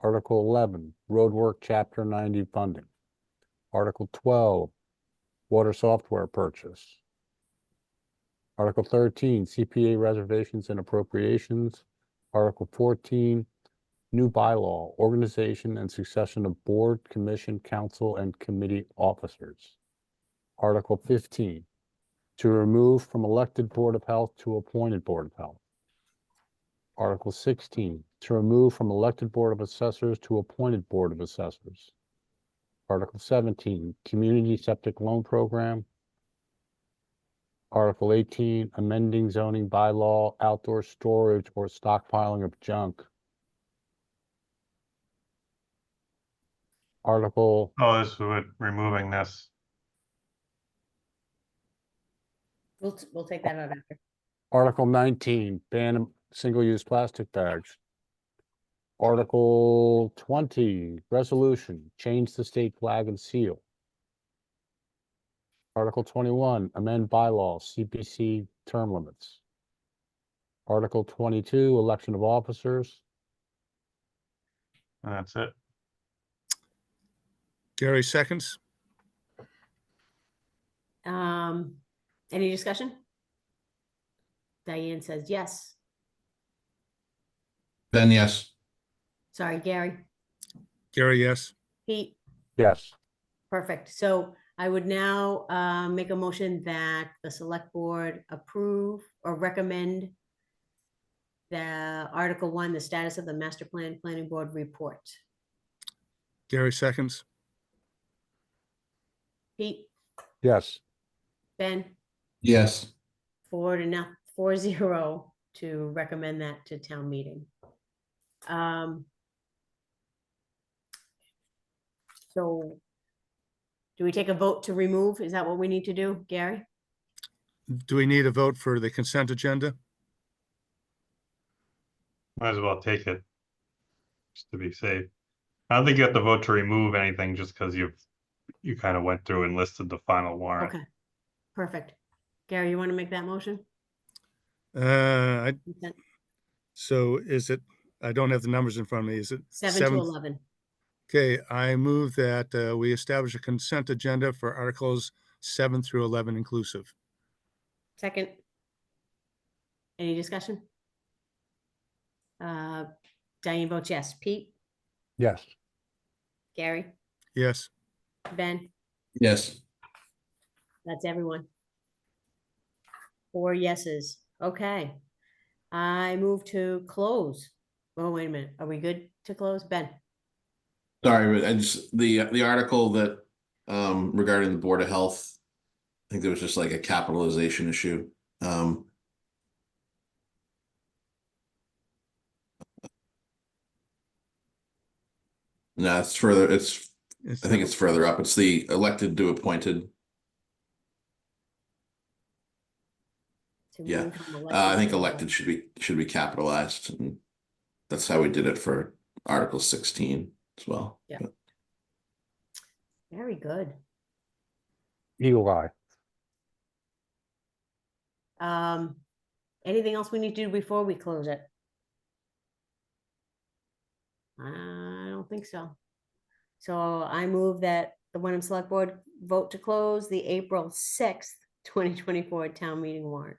Article eleven, roadwork chapter ninety funding. Article twelve, water software purchase. Article thirteen, CPA reservations and appropriations. Article fourteen, new bylaw, organization and succession of board, commission, council, and committee officers. Article fifteen, to remove from elected Board of Health to appointed Board of Health. Article sixteen, to remove from elected Board of Assessors to appointed Board of Assessors. Article seventeen, Community Septic Loan Program. Article eighteen, amending zoning bylaw, outdoor storage or stockpiling of junk. Article Oh, this would, removing this. We'll, t- we'll take that out after. Article nineteen, ban of single-use plastic bags. Article twenty, resolution, change the state flag and seal. Article twenty-one, amend bylaw, CPC term limits. Article twenty-two, election of officers. And that's it. Gary seconds. Um, any discussion? Diane says yes. Ben, yes. Sorry, Gary. Gary, yes. Pete, Yes. perfect. So I would now, uh, make a motion that the select board approve or recommend the Article One, the status of the master plan, planning board report. Gary seconds. Pete, Yes. Ben, Yes. four to not, four zero to recommend that to town meeting. Um. So. Do we take a vote to remove? Is that what we need to do, Gary? Do we need a vote for the consent agenda? Might as well take it. Just to be safe. I don't think you have to vote to remove anything just because you've, you kind of went through and listed the final warrant. Okay. Perfect. Gary, you want to make that motion? Uh, I, Consent, so is it, I don't have the numbers in front of me. Is it? Seven to seven- eleven. Okay, I move that, uh, we establish a consent agenda for articles seven through 11 inclusive. Second. Any discussion? Uh, Diane votes yes. Pete, Yes. Gary, Yes. Ben? Yes. That's everyone. Four yeses. Okay. I move to close. Oh, wait a minute. Are we good to close? Ben? Sorry, but I just, the, the article that, um, regarding the Board of Health, I think there was just like a capitalization issue. Um, No, it's further, it's, I think it's further up. It's the elected to appointed. to Yeah. move from Uh, I think to- elected should be, should be capitalized. and That's how we did it for Article sixteen as well. Yeah. Very good. Eagle eye. Um, anything else we need to do before we close it? I don't think so. So I move that the Wyndham Select Board vote to close the April sixth, twenty twenty-four town meeting warrant.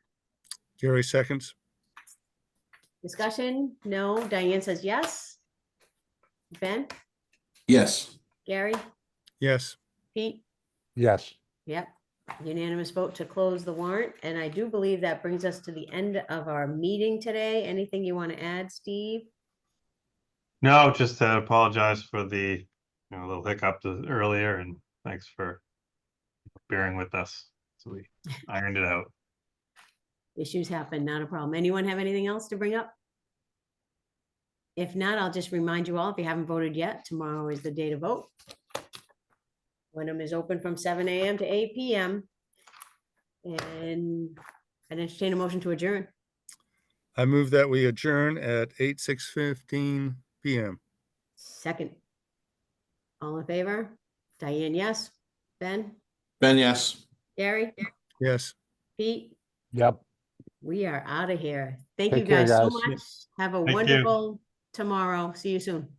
Gary seconds. Discussion? No. Diane says yes. Ben, Yes, Gary, Yes. Pete? Yes. Yep. Unanimous vote to close the warrant. And I do believe that brings us to the end of our meeting today. Anything you want to add, Steve? No, just to apologize for the, you know, little hiccup to- earlier and thanks for bearing with us. So we ironed it out. Issues happen, not a problem. Anyone have anything else to bring up? If not, I'll just remind you all, if you haven't voted yet, tomorrow is the day to vote. Wyndham is open from seven AM to eight PM. And I'd entertain a motion to adjourn. I move that we adjourn at eight, six fifteen PM. Second. All in favor? Diane, yes. Ben, Ben, yes. Gary, Yes. Pete, Yep. we are out of here. Thank you Take care, guys so guys. much. Have a you. wonderful tomorrow. See you soon.